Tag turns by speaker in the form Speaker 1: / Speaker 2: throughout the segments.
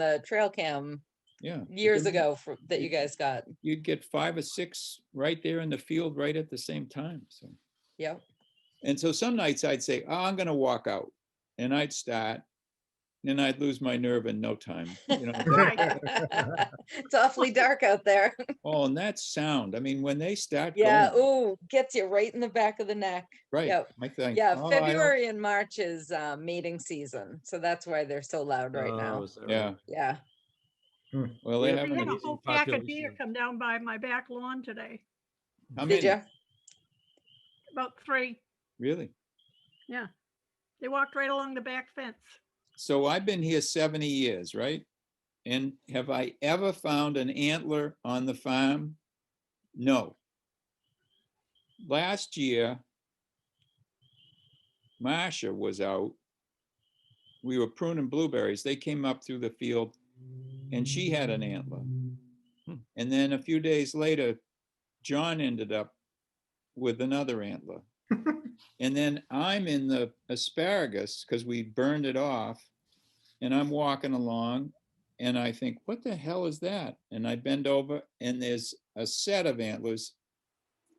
Speaker 1: the trail cam
Speaker 2: Yeah. you
Speaker 1: years
Speaker 2: can-
Speaker 1: ago for, that
Speaker 2: you
Speaker 1: you guys got.
Speaker 2: You'd get five or six right there in the field, right at the same time, so.
Speaker 1: Yep.
Speaker 2: And so some nights I'd say, oh, I'm gonna walk out, and I'd start, and I'd lose my nerve in no time, you know. that-
Speaker 1: It's awfully dark out there.
Speaker 2: Oh, and that sound, I mean, when they start
Speaker 1: Yeah,
Speaker 2: going,
Speaker 1: ooh, gets you right in the back of the neck.
Speaker 2: right,
Speaker 1: yep.
Speaker 2: I think.
Speaker 1: Yeah,
Speaker 2: "Oh, I don't-"
Speaker 1: February and March is uh, mating season, so that's why they're so loud Oh, right now.
Speaker 2: Yeah,
Speaker 1: Yeah,
Speaker 2: well, they
Speaker 3: I
Speaker 2: haven't,
Speaker 3: had a
Speaker 2: any-
Speaker 3: whole pack of deer
Speaker 4: population.
Speaker 3: come down by my back lawn today,
Speaker 2: how
Speaker 1: did
Speaker 2: many,
Speaker 1: you?
Speaker 3: about three.
Speaker 2: really?
Speaker 3: They walked right along the back fence.
Speaker 2: So I've been here seventy years, right? And have I ever found an antler on the farm? No. Last year, Marcia was out. We were pruning blueberries. They came up through the field and she had an antler. And then a few days later, John ended up with another antler. And then I'm in the asparagus because we burned it off. And I'm walking along and I think, what the hell is that? And I bend over and there's a set of antlers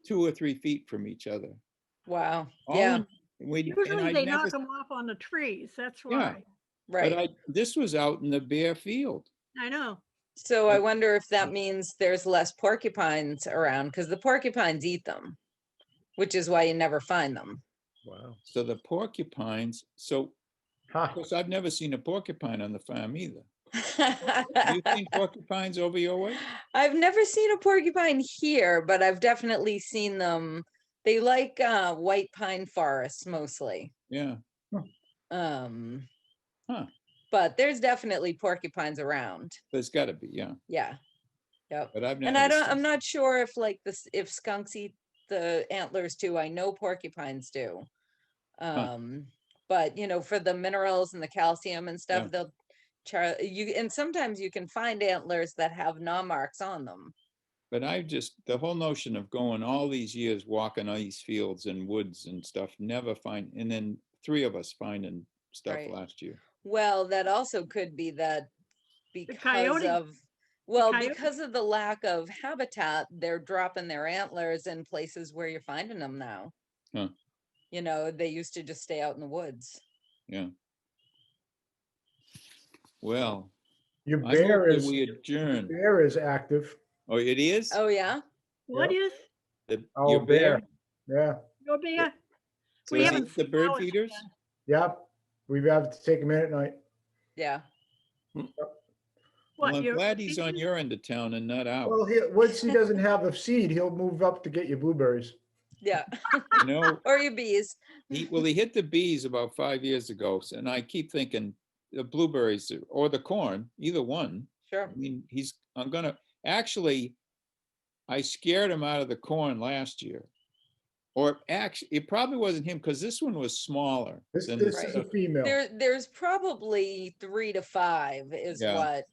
Speaker 2: two or three feet from each other.
Speaker 1: Wow,
Speaker 2: All
Speaker 1: yeah,
Speaker 2: in- We, and
Speaker 3: Usually
Speaker 2: I
Speaker 3: they
Speaker 2: never,
Speaker 3: knock them off on the trees, that's
Speaker 2: Yeah.
Speaker 3: why.
Speaker 2: but
Speaker 1: right.
Speaker 2: I, this was out in the bare field.
Speaker 3: I know.
Speaker 1: So I wonder if that means there's less porcupines around, because the porcupines eat them, which is why you never find them.
Speaker 4: Wow.
Speaker 2: So the porcupines, so of
Speaker 4: Ha,
Speaker 2: course, I've never seen a porcupine on the farm either. Do you think porcupines over your way?
Speaker 1: I've never seen a porcupine here, but I've definitely seen them. They like uh, white pine forests mostly.
Speaker 2: Yeah.
Speaker 1: Um,
Speaker 2: Huh.
Speaker 1: But there's definitely porcupines around.
Speaker 2: There's gotta be, yeah,
Speaker 1: Yeah. Yep.
Speaker 2: but I've never.
Speaker 1: And I don't,
Speaker 2: seen-
Speaker 1: I'm not sure if like this, if skunks eat the antlers too. I know porcupines do. Um, but you know, for the minerals and the calcium and
Speaker 2: Yeah.
Speaker 1: stuff, they'll char, you, and sometimes you can find antlers that have gnaw marks on them.
Speaker 2: But I just, the whole notion of going all these years walking all these fields and woods and stuff, never find, and then three of us finding stuff
Speaker 1: Right.
Speaker 2: last year.
Speaker 1: Well, that also could be that because
Speaker 3: coyote-
Speaker 1: of, well,
Speaker 3: coyote-
Speaker 1: because of the lack of habitat, they're dropping their antlers in places where you're finding them now.
Speaker 2: Huh.
Speaker 1: You know, they used to just stay out in the woods.
Speaker 2: Well,
Speaker 5: Your
Speaker 2: I move
Speaker 5: bear
Speaker 2: that
Speaker 5: is,
Speaker 2: we
Speaker 5: your
Speaker 2: adjourn.
Speaker 5: bear is active.
Speaker 2: Oh, it is?
Speaker 1: Oh, yeah?
Speaker 3: What is,
Speaker 2: The-
Speaker 5: Oh,
Speaker 2: your
Speaker 5: bear. Yeah,
Speaker 3: your bear?
Speaker 2: So
Speaker 3: We
Speaker 2: is
Speaker 3: haven't
Speaker 2: it the bird
Speaker 3: flowers
Speaker 2: feeders?
Speaker 5: yep. We have to take a minute night.
Speaker 1: Yeah.
Speaker 2: Well,
Speaker 3: What,
Speaker 2: I'm
Speaker 3: your
Speaker 2: glad he's on
Speaker 3: beaches?
Speaker 2: your end of town and not
Speaker 5: Well,
Speaker 2: out.
Speaker 5: he, once he doesn't have the seed, he'll move up to get your blueberries.
Speaker 1: Yeah.
Speaker 2: You know,
Speaker 1: Or your bees.
Speaker 2: he, well, he hit the bees about five years ago. s- And I keep thinking the blueberries or the corn, either one.
Speaker 1: Sure.
Speaker 2: I mean, he's, I'm gonna, actually, I scared him out of the corn last year. Or actually, it probably wasn't him, because this one was smaller.
Speaker 5: This,
Speaker 2: than
Speaker 5: this
Speaker 2: the
Speaker 5: is a
Speaker 2: stuff.
Speaker 5: female.
Speaker 1: There, there's probably three to five is
Speaker 2: Yeah.
Speaker 1: what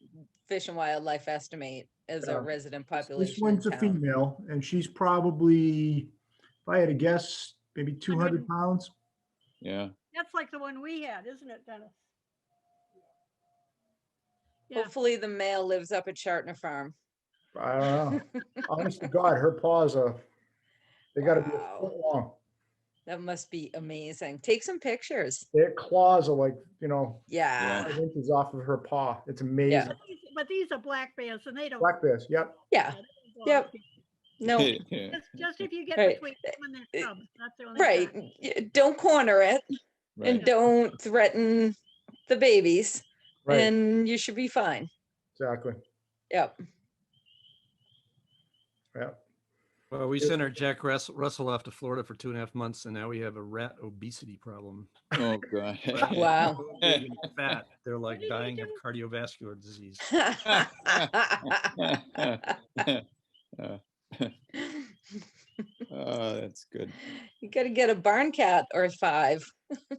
Speaker 1: Fish and Wildlife estimate as
Speaker 5: Yeah.
Speaker 1: our resident population.
Speaker 5: This
Speaker 1: in
Speaker 5: one's a
Speaker 1: town.
Speaker 5: female and she's probably, if I had to guess, maybe 200
Speaker 3: Hundred-
Speaker 5: pounds.
Speaker 2: Yeah,
Speaker 3: That's like the one we had, isn't it, Dennis? Yeah.
Speaker 1: Hopefully the male lives up at Chartner Farm.
Speaker 5: I don't know. Honest to God, her paws are, they gotta be a
Speaker 1: Wow.
Speaker 5: foot long.
Speaker 1: That must be amazing. Take some pictures.
Speaker 5: Their claws are like, you know,
Speaker 1: Yeah.
Speaker 5: five inches off of her paw. It's amazing.
Speaker 3: But these- But these are black bears and they don't.
Speaker 5: Black bears, yep.
Speaker 1: Yeah.
Speaker 3: they don't go
Speaker 1: Yep.
Speaker 3: out there.
Speaker 1: No,
Speaker 2: right.
Speaker 3: Just- Just if you get
Speaker 1: Right.
Speaker 3: between them and
Speaker 1: Uh,
Speaker 3: their cubs, that's the only.
Speaker 1: right.
Speaker 3: time.
Speaker 1: y- Don't corner it and don't threaten the babies
Speaker 5: Right,
Speaker 1: and you should be fine.
Speaker 5: exactly.
Speaker 1: Yep.
Speaker 5: Yep.
Speaker 4: Well, we
Speaker 5: It-
Speaker 4: sent our Jack Russell, Russell off to Florida for two and a half months, and now we have a rat obesity problem.
Speaker 2: Oh, God.
Speaker 1: Wow.
Speaker 4: So big and Fat, they're like
Speaker 3: did they
Speaker 4: dying of
Speaker 3: do?
Speaker 4: cardiovascular disease.
Speaker 2: Oh, that's good.
Speaker 1: You gotta get a barn cat or five.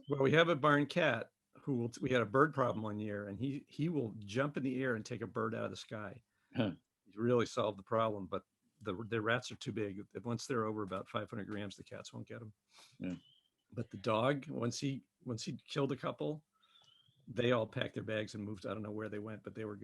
Speaker 4: Well, we have a barn cat who will, we had a bird problem one year, and he, he will jump in the air and take a bird out of the sky.
Speaker 2: Huh.
Speaker 4: He's really solved the problem, but the, the rats are too big. Once they're over about 500 grams, the cats won't get them.
Speaker 2: Yeah.
Speaker 4: But the dog, once he, once he killed a couple, they all packed their bags and moved. I don't know where they went, but they were